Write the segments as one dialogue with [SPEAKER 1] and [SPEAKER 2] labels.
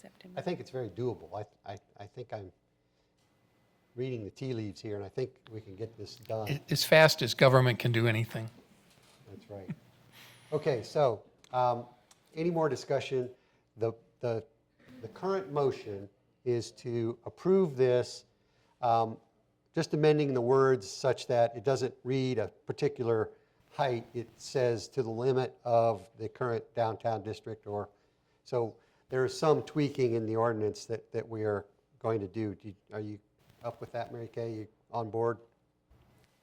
[SPEAKER 1] September.
[SPEAKER 2] I think it's very doable. I- I, I think I'm reading the tea leaves here, and I think we can get this done.
[SPEAKER 3] A- As fast as government can do anything.
[SPEAKER 2] That's right. Okay, so, um, any more discussion? The, the, the current motion is to approve this, um, just amending the words such that it doesn't read a particular height. It says to the limit of the current downtown district or, so there is some tweaking in the ordinance that, that we are going to do. Do you- Are you up with that, Mary Kay? You on board?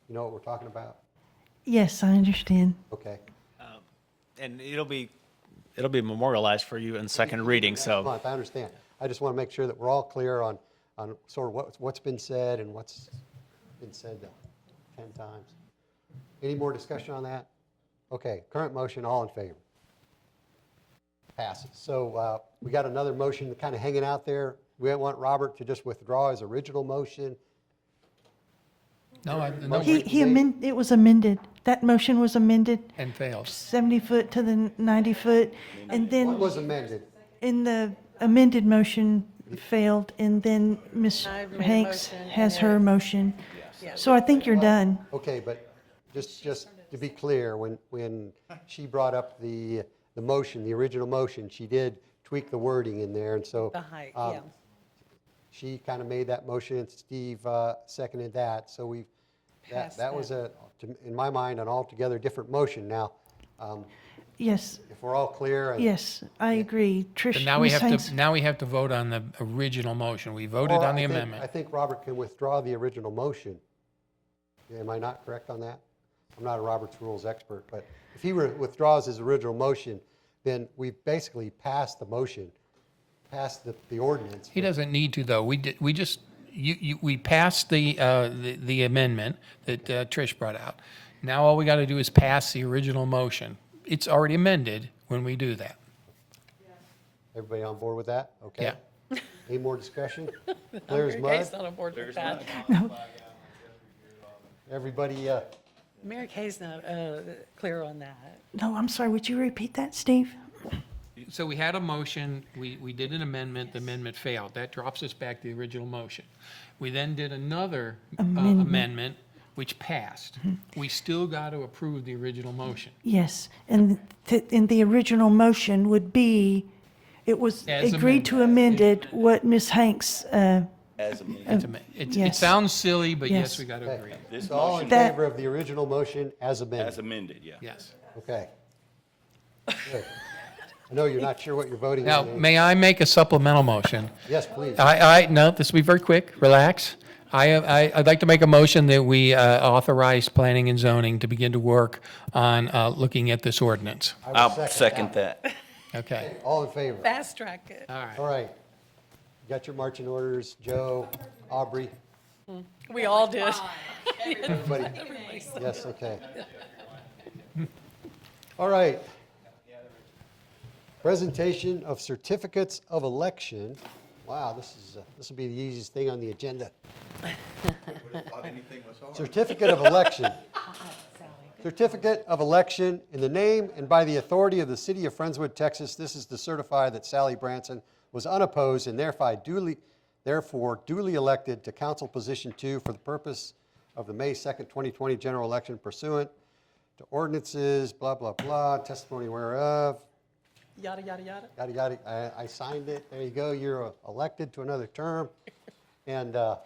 [SPEAKER 2] You know what we're talking about?
[SPEAKER 4] Yes, I understand.
[SPEAKER 2] Okay.
[SPEAKER 5] And it'll be, it'll be memorialized for you in second reading, so
[SPEAKER 2] month, I understand. I just want to make sure that we're all clear on, on sort of what, what's been said and what's been said the 10 times. Any more discussion on that? Okay, current motion, all in favor? Passes. So uh, we got another motion kind of hanging out there. We don't want Robert to just withdraw his original motion.
[SPEAKER 3] No, I- no,
[SPEAKER 4] He,
[SPEAKER 3] we-
[SPEAKER 4] he amend, it was amended. That motion was amended,
[SPEAKER 3] and failed.
[SPEAKER 4] 70 foot to the 90 foot. And
[SPEAKER 2] What
[SPEAKER 4] then
[SPEAKER 2] was amended?
[SPEAKER 4] in the amended motion failed, and then Ms.
[SPEAKER 1] I've made a
[SPEAKER 4] Hanks
[SPEAKER 1] motion,
[SPEAKER 4] has
[SPEAKER 1] and
[SPEAKER 4] her motion. So I think you're done.
[SPEAKER 2] Okay, but just, just to be clear, when, when she brought up the, the motion, the original motion, she did tweak the wording in there, and so.
[SPEAKER 1] The height,
[SPEAKER 2] um,
[SPEAKER 1] yeah.
[SPEAKER 2] She kind of made that motion, and Steve uh, seconded that, so we've, that,
[SPEAKER 1] Passed
[SPEAKER 2] that was a, to- in my mind, an altogether different motion. Now, um,
[SPEAKER 4] Yes,
[SPEAKER 2] if we're all clear. and-
[SPEAKER 4] yes, I agree. Trish,
[SPEAKER 3] And now we
[SPEAKER 4] Ms.
[SPEAKER 3] have
[SPEAKER 4] Hanks.
[SPEAKER 3] to, now we have to vote on the original motion. We voted
[SPEAKER 2] Or
[SPEAKER 3] on the
[SPEAKER 2] I think- I
[SPEAKER 3] amendment.
[SPEAKER 2] think Robert can withdraw the original motion. Am I not correct on that? I'm not a Robert's Rules expert, but if he re- withdraws his original motion, then we basically passed the motion, passed the, the ordinance.
[SPEAKER 3] He doesn't need to, though. We did, we just, you, you, we passed the, uh, the the amendment that uh, Trish brought out. Now all we got to do is pass the original motion. It's already amended when we do that.
[SPEAKER 2] Everybody on board with that? Okay. Any more discussion? Clear as
[SPEAKER 1] Mary Kay's
[SPEAKER 2] mud?
[SPEAKER 1] not on board with that.
[SPEAKER 2] Everybody, uh,
[SPEAKER 1] Mary Kay's not uh, clear on that.
[SPEAKER 4] No, I'm sorry, would you repeat that, Steve?
[SPEAKER 3] So we had a motion, we, we did an amendment, the amendment failed. That drops us back to the original motion. We then did another uh, amendment, which passed.
[SPEAKER 4] Mm-hmm.
[SPEAKER 3] We still got to approve the original motion.
[SPEAKER 4] Yes, and, th- and the original motion would be, it was
[SPEAKER 3] As
[SPEAKER 4] agreed to amended what Ms. Hanks, uh,
[SPEAKER 3] It's ama- It, it
[SPEAKER 4] Yes.
[SPEAKER 3] sounds silly, but yes,
[SPEAKER 4] Yes.
[SPEAKER 3] we got to agree.
[SPEAKER 2] so all in
[SPEAKER 4] That-
[SPEAKER 2] favor of the original motion as
[SPEAKER 6] As
[SPEAKER 2] amended?
[SPEAKER 6] amended, yeah.
[SPEAKER 3] Yes.
[SPEAKER 2] Okay. Good. I know you're not sure what you're voting
[SPEAKER 3] Now,
[SPEAKER 2] on.
[SPEAKER 3] may I make a supplemental motion?
[SPEAKER 2] Yes, please.
[SPEAKER 3] I, I, no, this will be very quick, relax. I, I, I'd like to make a motion that we uh, authorize planning and zoning to begin to work on uh, looking at this ordinance.
[SPEAKER 2] I will
[SPEAKER 6] I'll second that.
[SPEAKER 3] Okay,
[SPEAKER 2] All in favor?
[SPEAKER 1] Fast track it.
[SPEAKER 3] all right.
[SPEAKER 2] All right. You Got your marching orders, Joe, Aubrey,
[SPEAKER 1] We all did.
[SPEAKER 2] everybody? Yes, okay. All right. Presentation of certificates of election. Wow, this is, uh, this will be the easiest thing on the agenda. Certificate of election. Certificate of election in the name and by the authority of the city of Friendswood, Texas. This is to certify that Sally Branson was unopposed and therefore duly, therefore duly elected to council position two for the purpose of the May 2nd, 2020 general election pursuant to ordinances, blah, blah, blah, testimony whereof,
[SPEAKER 1] Yada, yada, yada.
[SPEAKER 2] yada, yada. I, I signed it. There you go. You're uh, elected to another term. And uh,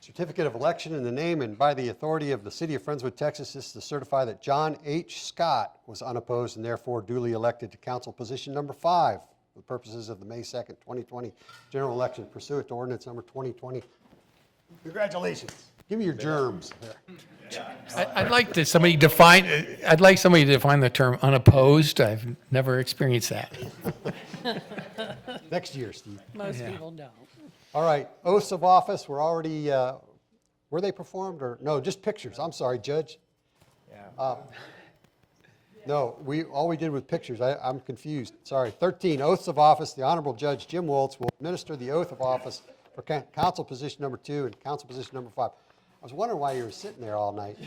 [SPEAKER 2] certificate of election in the name and by the authority of the city of Friendswood, Texas, is to certify that John H. Scott was unopposed and therefore duly elected to council position number five for the purposes of the May 2nd, 2020 general election pursuant to ordinance number 2020. Congratulations. Give me your germs there.
[SPEAKER 3] I- I'd like to, somebody define, I'd like somebody to define the term unopposed. I've never experienced that.
[SPEAKER 2] Next year, Steve.
[SPEAKER 1] Most people don't.
[SPEAKER 2] All right, oaths of office were already, uh, were they performed or, no, just pictures, I'm sorry, Judge. Uh, No, we, all we did was pictures, I, I'm confused, sorry. 13, oaths of office, the Honorable Judge Jim Woltz will administer the oath of office for coun- council position number two and council position number five. I was wondering why you were sitting there all night.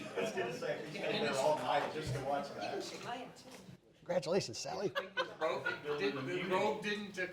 [SPEAKER 2] Congratulations, Sally.
[SPEAKER 7] Rogue didn't